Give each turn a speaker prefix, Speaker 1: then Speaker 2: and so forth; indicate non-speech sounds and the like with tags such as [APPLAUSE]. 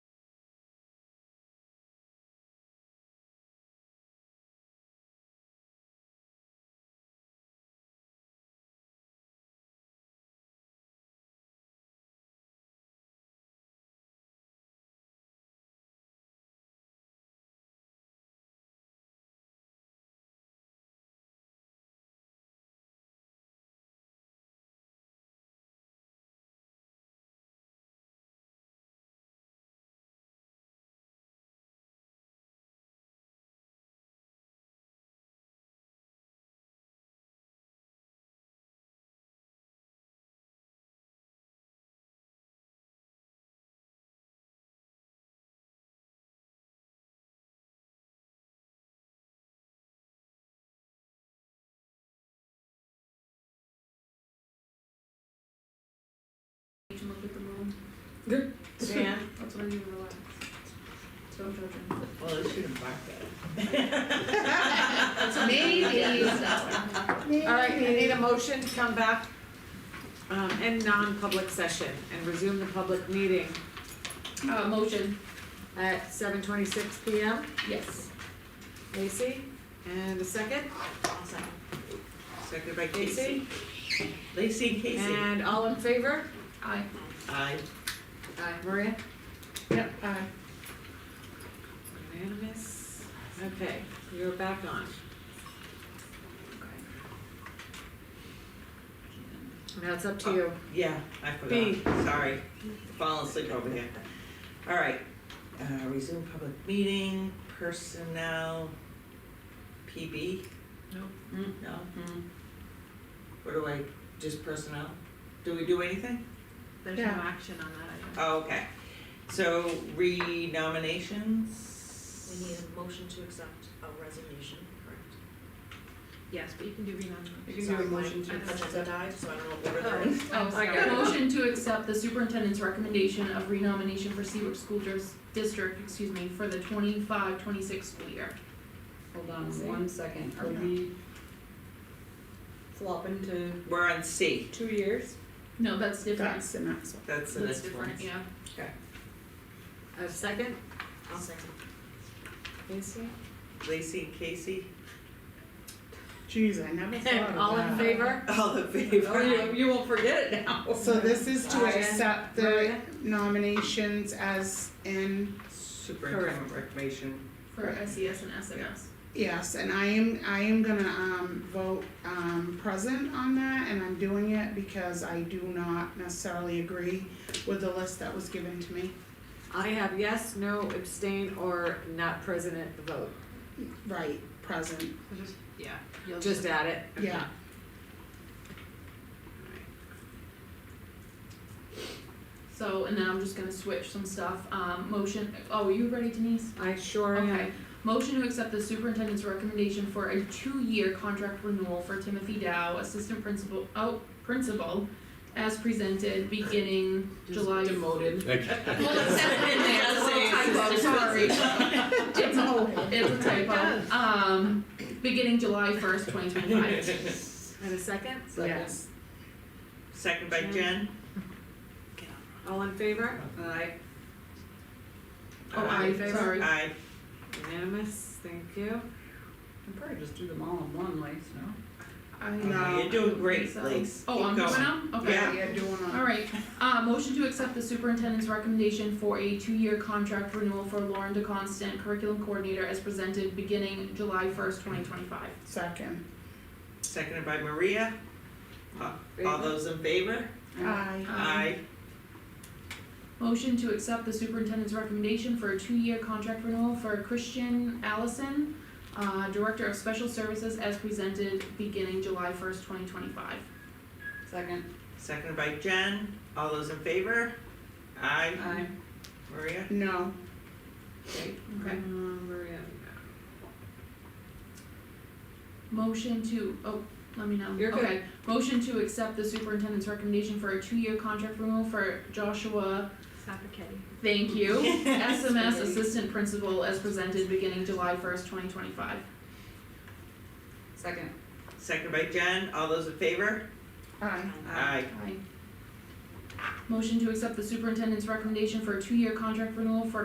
Speaker 1: Good.
Speaker 2: Dan?
Speaker 1: That's why you relax. Don't judge him.
Speaker 2: Well, they should have marked that.
Speaker 3: Maybe so.
Speaker 2: All right, I need a motion to come back, um, and non-public session and resume the public meeting
Speaker 3: Uh, motion,
Speaker 2: at seven twenty-six P M.
Speaker 3: yes.
Speaker 2: Lacey, and a second,
Speaker 4: Seconded by Casey.
Speaker 2: Lacey,
Speaker 4: Lacey and Casey.
Speaker 2: and all in favor?
Speaker 3: Aye.
Speaker 4: Aye.
Speaker 2: Aye. Maria?
Speaker 3: Yep, aye.
Speaker 2: Unanimous. Okay, you're back on.
Speaker 3: Oh,
Speaker 2: Now it's up to you.
Speaker 4: Yeah, I
Speaker 2: B.
Speaker 4: forgot, sorry, falling asleep over here. All right, uh, resume public meeting, personnel, PB?
Speaker 2: Nope.
Speaker 4: Mm, No? What do I, just personnel? Do we do anything?
Speaker 1: There's
Speaker 3: no Yeah.
Speaker 1: action on that item.
Speaker 4: Oh, okay, so renominations?
Speaker 5: We need a motion to accept a resignation, correct?
Speaker 1: Yes, but you can do renomination.
Speaker 5: You can do a motion to accept. Agenda died, so I don't know what order they're in.
Speaker 3: Oh,
Speaker 1: I
Speaker 3: sorry.
Speaker 1: got it.
Speaker 3: Motion to accept the superintendent's recommendation of renomination for Seabrook School Dis- District, excuse me, for the 25-26 school year.
Speaker 6: Hold
Speaker 7: Oh.
Speaker 2: Um,
Speaker 6: on one second, are we flopping to
Speaker 4: We're on C,
Speaker 6: two years?
Speaker 3: No, that's different.
Speaker 6: the next one.
Speaker 4: that's the
Speaker 3: That's
Speaker 4: next one.
Speaker 3: different, yeah.
Speaker 2: A second,
Speaker 5: I'll second.
Speaker 2: Lacey?
Speaker 4: Lacey and Casey,
Speaker 7: Jeez,
Speaker 2: [LAUGHS]
Speaker 7: I never thought of
Speaker 2: [LAUGHS]
Speaker 7: that.
Speaker 2: All in favor?
Speaker 4: all in favor?
Speaker 2: Oh, you, you won't forget it now.
Speaker 7: [LAUGHS] So this is to
Speaker 2: Maria?
Speaker 7: accept the
Speaker 2: Maria?
Speaker 7: nominations as in,
Speaker 4: Superintendent recommendation,
Speaker 3: For SES and SMS.
Speaker 7: yes, and I am, I am gonna, um, vote, um, present on that, and I'm doing it because I do not necessarily agree with the list that was given to me.
Speaker 2: I have yes, no, abstain, or not present at the vote.
Speaker 7: Right, present,
Speaker 1: Yeah, you'll
Speaker 2: Just add it. Okay.
Speaker 7: yeah.
Speaker 3: So, and then I'm just gonna switch some stuff. Um, motion, oh, you ready Denise?
Speaker 2: I sure am.
Speaker 3: Okay, motion to accept the superintendent's recommendation for a two-year contract renewal for Timothy Dow, assistant principal, oh, principal, as presented beginning July.
Speaker 6: Demoted.
Speaker 3: [LAUGHS] Well, it's definitely in there, it's a little typo, sorry. It's
Speaker 7: Oh.
Speaker 3: a, it's a typo, um, beginning July first, twenty twenty-five.
Speaker 2: And a second,
Speaker 7: Yes.
Speaker 4: [LAUGHS] second by
Speaker 2: Jen.
Speaker 4: Jen.
Speaker 2: all in favor? Aye.
Speaker 3: Oh, aye, sorry.
Speaker 4: Aye.
Speaker 2: Unanimous, thank you.
Speaker 6: I'd probably just do them all in one place, no?
Speaker 7: I
Speaker 4: Oh,
Speaker 7: know,
Speaker 4: You're doing great,
Speaker 3: So-
Speaker 4: Lace.
Speaker 3: Oh, I'm
Speaker 4: Keep
Speaker 3: going now? Okay.
Speaker 4: Yeah.
Speaker 7: yeah, doing all.
Speaker 3: Alright, uh, motion to accept the superintendent's recommendation for a two-year contract renewal for Lauren DeConstant, curriculum coordinator, as presented beginning July first, twenty twenty-five.
Speaker 7: Second,
Speaker 4: Seconded by Maria. Uh, All those in favor?
Speaker 7: aye,
Speaker 4: Aye.
Speaker 3: Motion to accept the superintendent's recommendation for a two-year contract renewal for Christian Allison, uh, director of special services, as presented beginning July first, twenty twenty-five.
Speaker 6: Second,
Speaker 4: Seconded by Jen. All those in favor? Aye.
Speaker 6: aye.
Speaker 4: Maria?
Speaker 7: no,
Speaker 3: Okay.
Speaker 2: Um, Maria,
Speaker 3: Motion to, oh, let me know.
Speaker 2: You're good.
Speaker 3: Okay, motion to accept the superintendent's recommendation for a two-year contract renewal for Joshua
Speaker 1: Suffocating.
Speaker 3: Thank you. SMS Assistant Principal as presented beginning July first, twenty twenty-five.
Speaker 6: Second,
Speaker 4: Seconded by Jen. All those in favor?
Speaker 7: aye,
Speaker 4: Aye.
Speaker 3: Motion to accept the superintendent's recommendation for a two-year contract renewal for